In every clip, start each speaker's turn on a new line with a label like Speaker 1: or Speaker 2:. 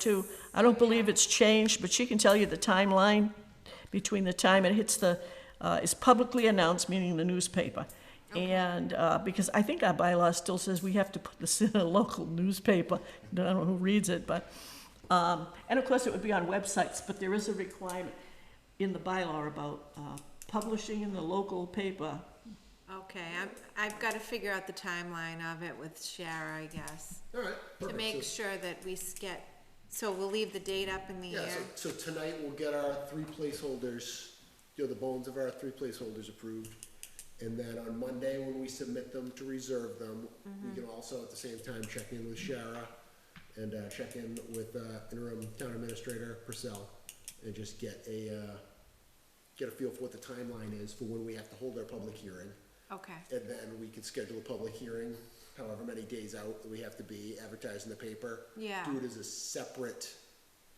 Speaker 1: to, I don't believe it's changed, but she can tell you the timeline between the time it hits the, uh, is publicly announced, meaning the newspaper. And, uh, because I think our bylaw still says we have to put this in a local newspaper, I don't know who reads it, but, um, and of course, it would be on websites, but there is a requirement in the bylaw about, uh, publishing in the local paper.
Speaker 2: Okay, I'm, I've gotta figure out the timeline of it with Shara, I guess,
Speaker 3: All right.
Speaker 2: to
Speaker 3: perfect.
Speaker 2: make
Speaker 3: So-
Speaker 2: sure that we s- get, so we'll leave the date up in the
Speaker 3: Yeah,
Speaker 2: air.
Speaker 3: so, so tonight we'll get our three placeholders, you know, the bones of our three placeholders approved. And then on Monday, when we submit them to reserve them,
Speaker 2: Mm-hmm.
Speaker 3: we can also at the same time check in with Shara and, uh, check in with, uh, interim town administrator Purcell and just get a, uh, get a feel for what the timeline is for when we have to hold our public hearing.
Speaker 2: Okay,
Speaker 3: And then we can schedule a public hearing, however many days out that we have to be, advertised in the paper.
Speaker 2: Yeah.
Speaker 3: Do it as a separate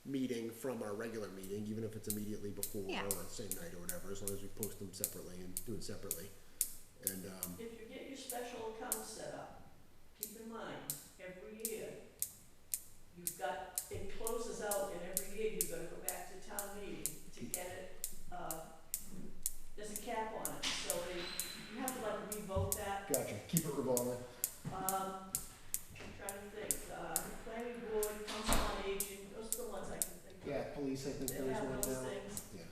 Speaker 3: meeting from our regular meeting, even if it's immediately before
Speaker 2: Yeah.
Speaker 3: or the same night or whatever, as long as we post them separately and do it separately. And, um,
Speaker 1: If you get your special account set up, keep in mind, every year, you've got, it closes out and every year you've gotta go back to town meeting to get it, uh, there's a cap on it, so they, you have to like revote that.
Speaker 3: gotcha, keep it revolving.
Speaker 1: Um, I'm trying to think, uh, planning board, council on aging, those are the ones I can think of.
Speaker 3: police, I think
Speaker 1: They have those things.
Speaker 3: Yeah.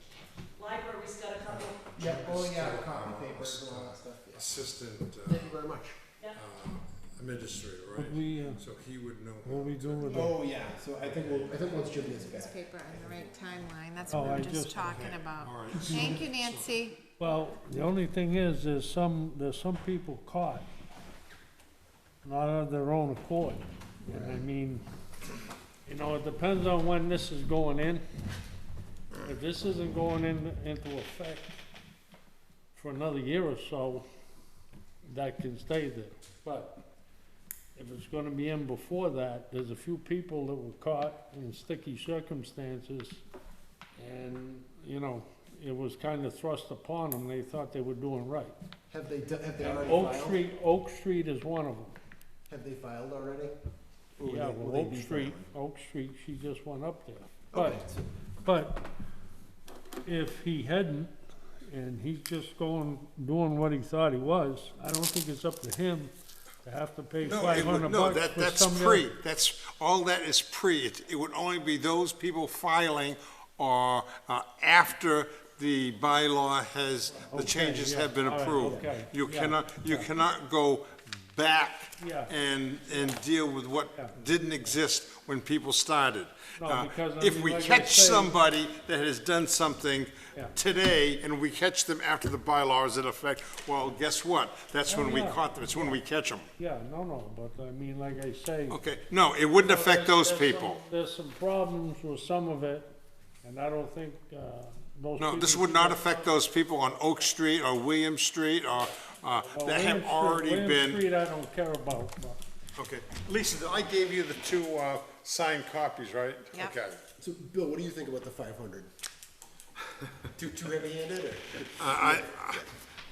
Speaker 1: Library's got a couple,
Speaker 3: Yeah,
Speaker 4: oh, yeah, the copy papers and all that
Speaker 3: stuff,
Speaker 4: assistant uh,
Speaker 3: Thank you very much.
Speaker 1: yeah.
Speaker 4: uh, administrator,
Speaker 5: What
Speaker 4: right?
Speaker 5: we, uh,
Speaker 4: So he would know.
Speaker 5: what we doing with the,
Speaker 6: Oh, yeah, so I think we'll,
Speaker 3: I think once Jim gets
Speaker 2: this
Speaker 3: back,
Speaker 2: paper on the right timeline, that's
Speaker 5: Oh,
Speaker 2: what we
Speaker 5: I
Speaker 2: were just
Speaker 5: just-
Speaker 2: talking about.
Speaker 4: All right. so-
Speaker 2: Thank you, Nancy.
Speaker 5: well, the only thing is, there's some, there's some people caught, not of their own accord. And I mean, you know, it depends on when this is going in. If this isn't going in, into effect for another year or so, that can stay there. But if it's gonna be in before that, there's a few people that were caught in sticky circumstances. And, you know, it was kinda thrust upon them, they thought they were doing right.
Speaker 3: have they, do- have they
Speaker 5: And
Speaker 3: already
Speaker 5: Oak
Speaker 3: filed?
Speaker 5: Street, Oak Street is one of them.
Speaker 3: Have they filed already? Or will
Speaker 5: Yeah,
Speaker 3: they- will
Speaker 5: well,
Speaker 3: they
Speaker 5: Oak
Speaker 3: be
Speaker 5: Street,
Speaker 3: filing?
Speaker 5: Oak Street, she just went up there.
Speaker 3: Okay,
Speaker 5: But,
Speaker 3: so-
Speaker 5: but if he hadn't, and he's just going, doing what he thought he was, I don't think it's up to him to have to pay
Speaker 4: No,
Speaker 5: five
Speaker 4: it would-
Speaker 5: hundred
Speaker 4: no,
Speaker 5: bucks
Speaker 4: that,
Speaker 5: for
Speaker 4: that's
Speaker 5: some
Speaker 4: pre,
Speaker 5: other.
Speaker 4: that's, all that is pre. It, it would only be those people filing or, uh, after the bylaw has, the
Speaker 5: Okay,
Speaker 4: changes
Speaker 5: yeah,
Speaker 4: have been
Speaker 5: all right,
Speaker 4: approved.
Speaker 5: okay,
Speaker 4: You
Speaker 5: yeah,
Speaker 4: cannot, you
Speaker 5: yeah.
Speaker 4: cannot go back
Speaker 5: Yeah.
Speaker 4: and, and deal with
Speaker 5: Yeah.
Speaker 4: what didn't exist when people started.
Speaker 5: No,
Speaker 4: Uh,
Speaker 5: because, I
Speaker 4: If
Speaker 5: mean,
Speaker 4: we
Speaker 5: like I
Speaker 4: catch
Speaker 5: say-
Speaker 4: somebody that has done something
Speaker 5: Yeah.
Speaker 4: today and we catch them after the bylaws in effect, well, guess what? That's when we
Speaker 5: Oh, yeah.
Speaker 4: caught them, it's when we catch them.
Speaker 5: Yeah, no, no, but I mean, like I say.
Speaker 4: Okay, no, it wouldn't affect
Speaker 5: there's-
Speaker 4: those
Speaker 5: there's
Speaker 4: people.
Speaker 5: some- There's some problems with some of it, and I don't think, uh, those.
Speaker 4: No, this
Speaker 5: people-
Speaker 4: would not affect those people on Oak Street or William Street or, uh,
Speaker 5: Well,
Speaker 4: that
Speaker 5: Oh, William
Speaker 4: have
Speaker 5: Street-
Speaker 4: already
Speaker 5: William
Speaker 4: been.
Speaker 5: Street, I don't care about, but.
Speaker 4: Okay, Lisa, I gave you the two, uh, signed copies, right?
Speaker 2: Yep.
Speaker 4: Okay.
Speaker 3: So, Bill, what do you think about the five hundred? Too, too heavy-handed or
Speaker 4: Uh, I, I,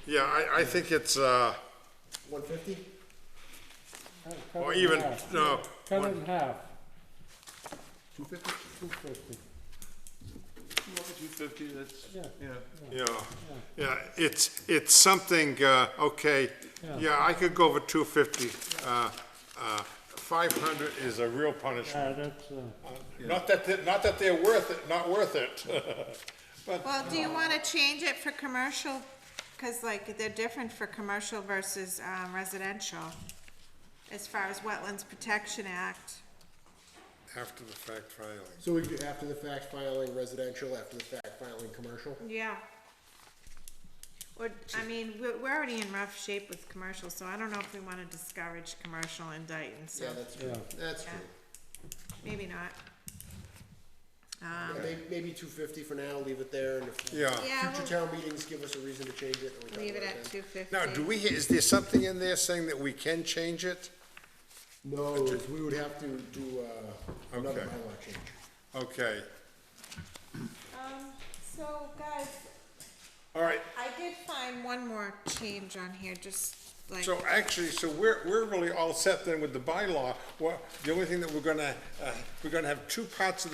Speaker 4: yeah, I, I think it's, uh,
Speaker 3: one fifty?
Speaker 5: cut- cut
Speaker 4: or
Speaker 5: it in
Speaker 4: even,
Speaker 5: half.
Speaker 4: no,
Speaker 5: Oh, Cut it in half,
Speaker 3: Two fifty?
Speaker 5: two fifty.
Speaker 7: Two fifty, that's,
Speaker 5: Yeah.
Speaker 7: yeah.
Speaker 4: Yeah, yeah, it's, it's something, uh, okay, yeah, I could go for two fifty. uh, Five hundred is a real punishment.
Speaker 5: Yeah, that's, uh,
Speaker 4: Not that, they're- not that they're worth it, not worth it.
Speaker 2: Well, do you wanna change it for commercial? Cause like, they're different for commercial versus, um, residential, as far as Wetlands Protection Act.
Speaker 4: After the fact filing.
Speaker 3: So we do after the fact filing residential, after the fact filing commercial?
Speaker 2: Yeah. Or, I mean, we're, we're already in rough shape with commercial, so I don't know if we wanna discourage commercial in Dayton, so
Speaker 3: Yeah, that's true, that's true.
Speaker 2: maybe not.
Speaker 3: Yeah, may- Maybe two fifty for now, leave it there, and if
Speaker 4: Yeah.
Speaker 2: Yeah,
Speaker 3: future town meetings give us a reason to change it, then we
Speaker 2: we'll
Speaker 3: talk
Speaker 2: leave it
Speaker 3: about
Speaker 2: at
Speaker 3: then.
Speaker 2: two fifty.
Speaker 4: Now, do we, is there something in there saying that we can change it?
Speaker 3: No, 'cause we would have to do, uh, another
Speaker 4: Okay.
Speaker 3: bylaw change.
Speaker 4: Okay,
Speaker 2: Um, so guys,
Speaker 4: all right,
Speaker 2: I did find one more change on here, just like,
Speaker 4: So actually, so we're, we're really all set then with the bylaw. Well, the only thing that we're gonna, uh, we're gonna have two parts of